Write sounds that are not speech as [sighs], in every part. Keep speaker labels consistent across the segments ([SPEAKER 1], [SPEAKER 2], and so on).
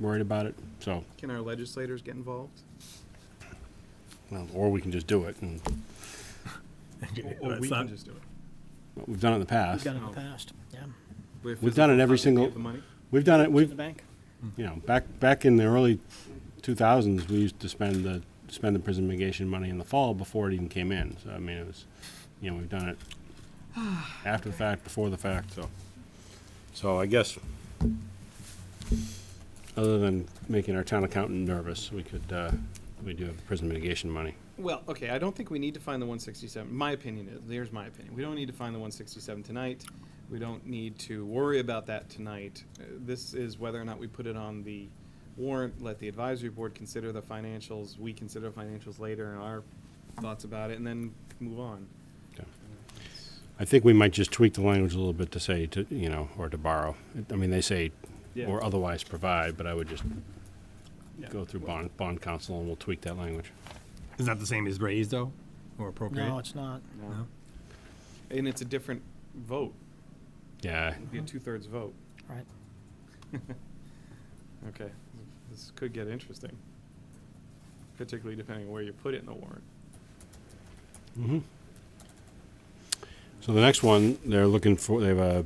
[SPEAKER 1] worried about it, so,
[SPEAKER 2] Can our legislators
[SPEAKER 1] [laughs]
[SPEAKER 2] get involved?
[SPEAKER 1] well, or we can just do it, and
[SPEAKER 2] Or we can just do it?
[SPEAKER 1] we've done it in the
[SPEAKER 3] We've
[SPEAKER 1] past.
[SPEAKER 3] done it
[SPEAKER 2] Oh.
[SPEAKER 3] in the past, yeah.
[SPEAKER 2] With
[SPEAKER 1] We've done it every single-
[SPEAKER 2] physical copy of The money?
[SPEAKER 1] We've done it,
[SPEAKER 3] To the
[SPEAKER 1] we've,
[SPEAKER 3] bank?
[SPEAKER 1] you know, back, back in the early two thousands, we used to spend the, spend the prison mitigation money in the fall before it even came in, so, I mean, it was, you know, we've done [sighs] it after the fact, before the fact, so. So I guess, other than making our town accountant nervous, we could, uh, we do have prison mitigation money.
[SPEAKER 2] Well, okay, I don't think we need to find the one sixty-seven. My opinion is, there's my opinion. We don't need to find the one sixty-seven tonight. We don't need to worry about that tonight. Uh, This is whether or not we put it on the warrant, let the advisory board consider the financials, we consider financials later and our thoughts about it, and then move on.
[SPEAKER 1] Okay. I think we might just tweak the language a little bit to say to, you know, or to borrow. I mean, they say,
[SPEAKER 2] Yeah.
[SPEAKER 1] or otherwise provide, but I would just
[SPEAKER 2] Yeah.
[SPEAKER 1] go through bond, bond council and we'll tweak that language.
[SPEAKER 4] Isn't that the same as raise though, or appropriate?
[SPEAKER 3] No, it's not.
[SPEAKER 4] No?
[SPEAKER 2] And it's a different vote,
[SPEAKER 1] Yeah,
[SPEAKER 2] it'd be a
[SPEAKER 3] Uh-huh.
[SPEAKER 2] two-thirds vote.
[SPEAKER 3] Right.
[SPEAKER 2] [laughs] Okay, this could get interesting, particularly depending on where you put it in the warrant.
[SPEAKER 1] So the next one, they're looking for, they have a,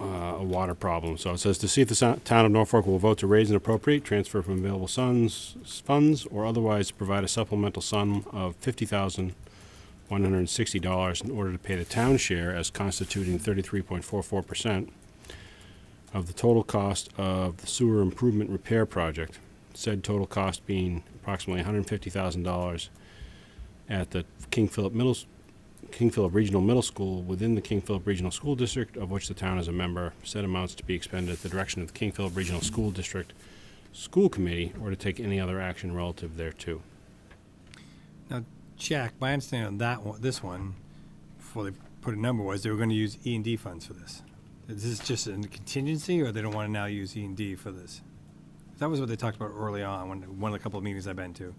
[SPEAKER 1] uh, a water problem. So it says to see if the so- town of Norfolk will vote to raise and appropriate, transfer from available sons, funds, or otherwise provide a supplemental sum of fifty thousand one hundred and sixty dollars in order to pay the town share as constituting thirty-three point four four percent of the total cost of the sewer improvement repair project. Said total cost being approximately one hundred and fifty thousand dollars at the King Philip Middle, S- King Philip Regional Middle School within the King Philip Regional School District, of which the town is a member, said amounts to be expended at the direction of the King Philip Regional School District School Committee, or to take any other action relative thereto.
[SPEAKER 4] Now, Jack, my understanding on that one, this one, before they put a number was they were going to use E and D funds for this. Is this just a contingency, or they don't want to now use E and D for this? That was what they talked about early on, when, one of the couple of meetings I've been to.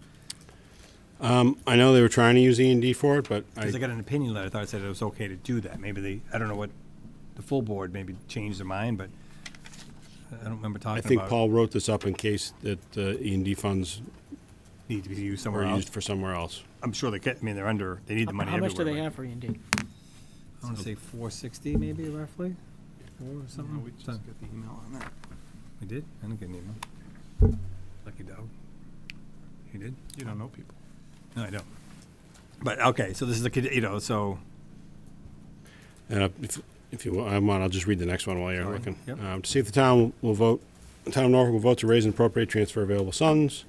[SPEAKER 1] I know they were trying to use E and D for it, but
[SPEAKER 4] Because I
[SPEAKER 1] I,
[SPEAKER 4] got an opinion letter, I thought it said it was okay to do that. Maybe they, I don't know what, the full board maybe changed their mind, but I don't remember talking
[SPEAKER 1] I
[SPEAKER 4] about.
[SPEAKER 1] think Paul wrote this up in case that the E and D funds
[SPEAKER 4] Need to be used somewhere
[SPEAKER 1] were
[SPEAKER 4] else.
[SPEAKER 1] used for somewhere else.
[SPEAKER 4] I'm sure they, ca- I mean, they're under, they need the money
[SPEAKER 3] How
[SPEAKER 4] everywhere.
[SPEAKER 3] much do they
[SPEAKER 4] but-
[SPEAKER 3] have for E and D?
[SPEAKER 4] I want to say 460 maybe roughly, or
[SPEAKER 2] No,
[SPEAKER 4] something.
[SPEAKER 2] we just got the email on that.
[SPEAKER 4] We did? I didn't get an email. Lucky dog. You did?
[SPEAKER 2] You don't know people.
[SPEAKER 4] No, I don't. But, okay, so this is the, kid- you know, so,
[SPEAKER 1] And uh, if, if you want, I'll just read the next one while you're
[SPEAKER 4] Sorry.
[SPEAKER 1] looking.
[SPEAKER 4] Yep.
[SPEAKER 1] Um, to see if the town will vote, the town of Norfolk will vote to raise and appropriate transfer available funds,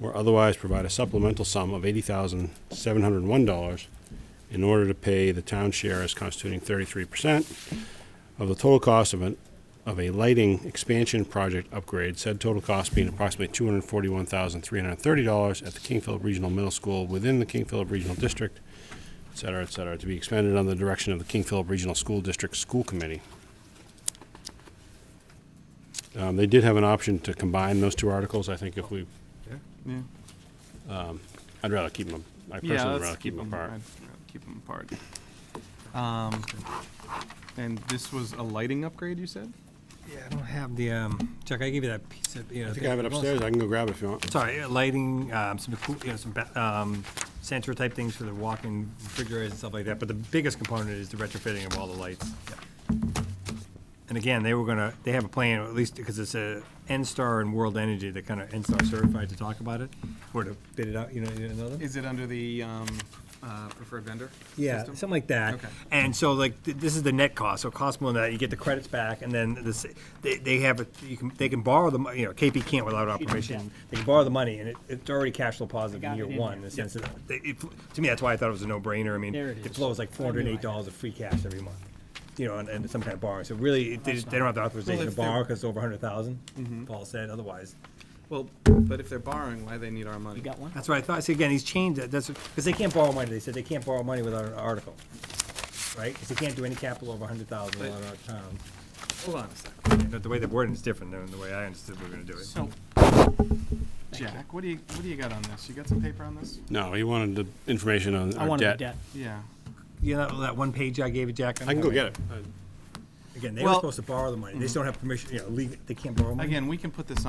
[SPEAKER 1] or otherwise provide a supplemental sum of eighty thousand seven hundred and one dollars in order to pay the town share as constituting thirty-three percent of the total cost of an of a lighting expansion project upgrade. Said total cost being approximately two hundred forty-one thousand three hundred thirty dollars at the King Philip Regional Middle School within the King Philip Regional District et cetera, et cetera, to be expended on the direction of the King Philip Regional School District School Committee. Um, they did have an option to combine those two articles, I think if we,
[SPEAKER 2] Yeah.
[SPEAKER 1] I'd rather keep them, I personally would rather keep them apart.
[SPEAKER 2] Keep them apart. Um, and this was a lighting upgrade, you said?
[SPEAKER 4] yeah, I don't have the, um, Chuck, I gave you that piece of, you know.
[SPEAKER 1] I think I have it upstairs, I can go grab it if you want.
[SPEAKER 4] Sorry, uh, lighting, um, some, cool- you know, some, ba- um, sensor type things for the walk-in refrigerators and stuff like that, but the biggest component is the retrofitting of all the lights. And again, they were gonna, they have a plan, or at least, because it's a N-Star and World Energy, they're kind of N-Star certified to talk about it, or to bid it out, you know, you know.
[SPEAKER 2] Is it under the, um, uh, preferred vendor?
[SPEAKER 4] Yeah,
[SPEAKER 2] system?
[SPEAKER 4] something like that.
[SPEAKER 2] Okay.
[SPEAKER 4] And so like, th- this is the net cost, so it costs more than that, you get the credits back, and then this, they, they have, it- you can, they can borrow the, mo- you know, KP can't without our permission. They can borrow the money, and it, it's already cash flow positive
[SPEAKER 3] got
[SPEAKER 4] in year
[SPEAKER 3] it in
[SPEAKER 4] one,
[SPEAKER 3] here.
[SPEAKER 4] in the sense that, they- it fl- to me, that's why I thought it was a no-brainer, I mean,
[SPEAKER 3] There it is.
[SPEAKER 4] it flows like four hundred and eight dollars of free cash every month, you know, and, and some kind of borrowing, so really, it- they, just- they don't have the authorization to
[SPEAKER 2] if they're-
[SPEAKER 4] borrow, because it's over a hundred thousand, Paul said, otherwise.
[SPEAKER 2] Well, but if they're borrowing, why they need our money?
[SPEAKER 3] You got one?
[SPEAKER 4] That's what I thought. See, again, he's changed it. That's because they can't borrow money. They said they can't borrow money without an article, right? Because they can't do any capital over a hundred thousand without our town.
[SPEAKER 2] Hold on a second.
[SPEAKER 4] But the way the wording is different than the way I understood we were going to do it.
[SPEAKER 2] So, Jack, what do you, what do you got on this? You got some paper on this?
[SPEAKER 1] No, he wanted the information on
[SPEAKER 3] I
[SPEAKER 1] our
[SPEAKER 3] wanted the
[SPEAKER 1] debt.
[SPEAKER 3] debt.
[SPEAKER 2] Yeah.
[SPEAKER 4] You know that one page I gave you, Jack?
[SPEAKER 1] I can go get it. I-
[SPEAKER 4] Again, they were
[SPEAKER 2] Well- Mm-hmm.
[SPEAKER 4] supposed to borrow the money. They just don't have permission. You know, legal, they can't borrow money.
[SPEAKER 2] Again, we can put this on.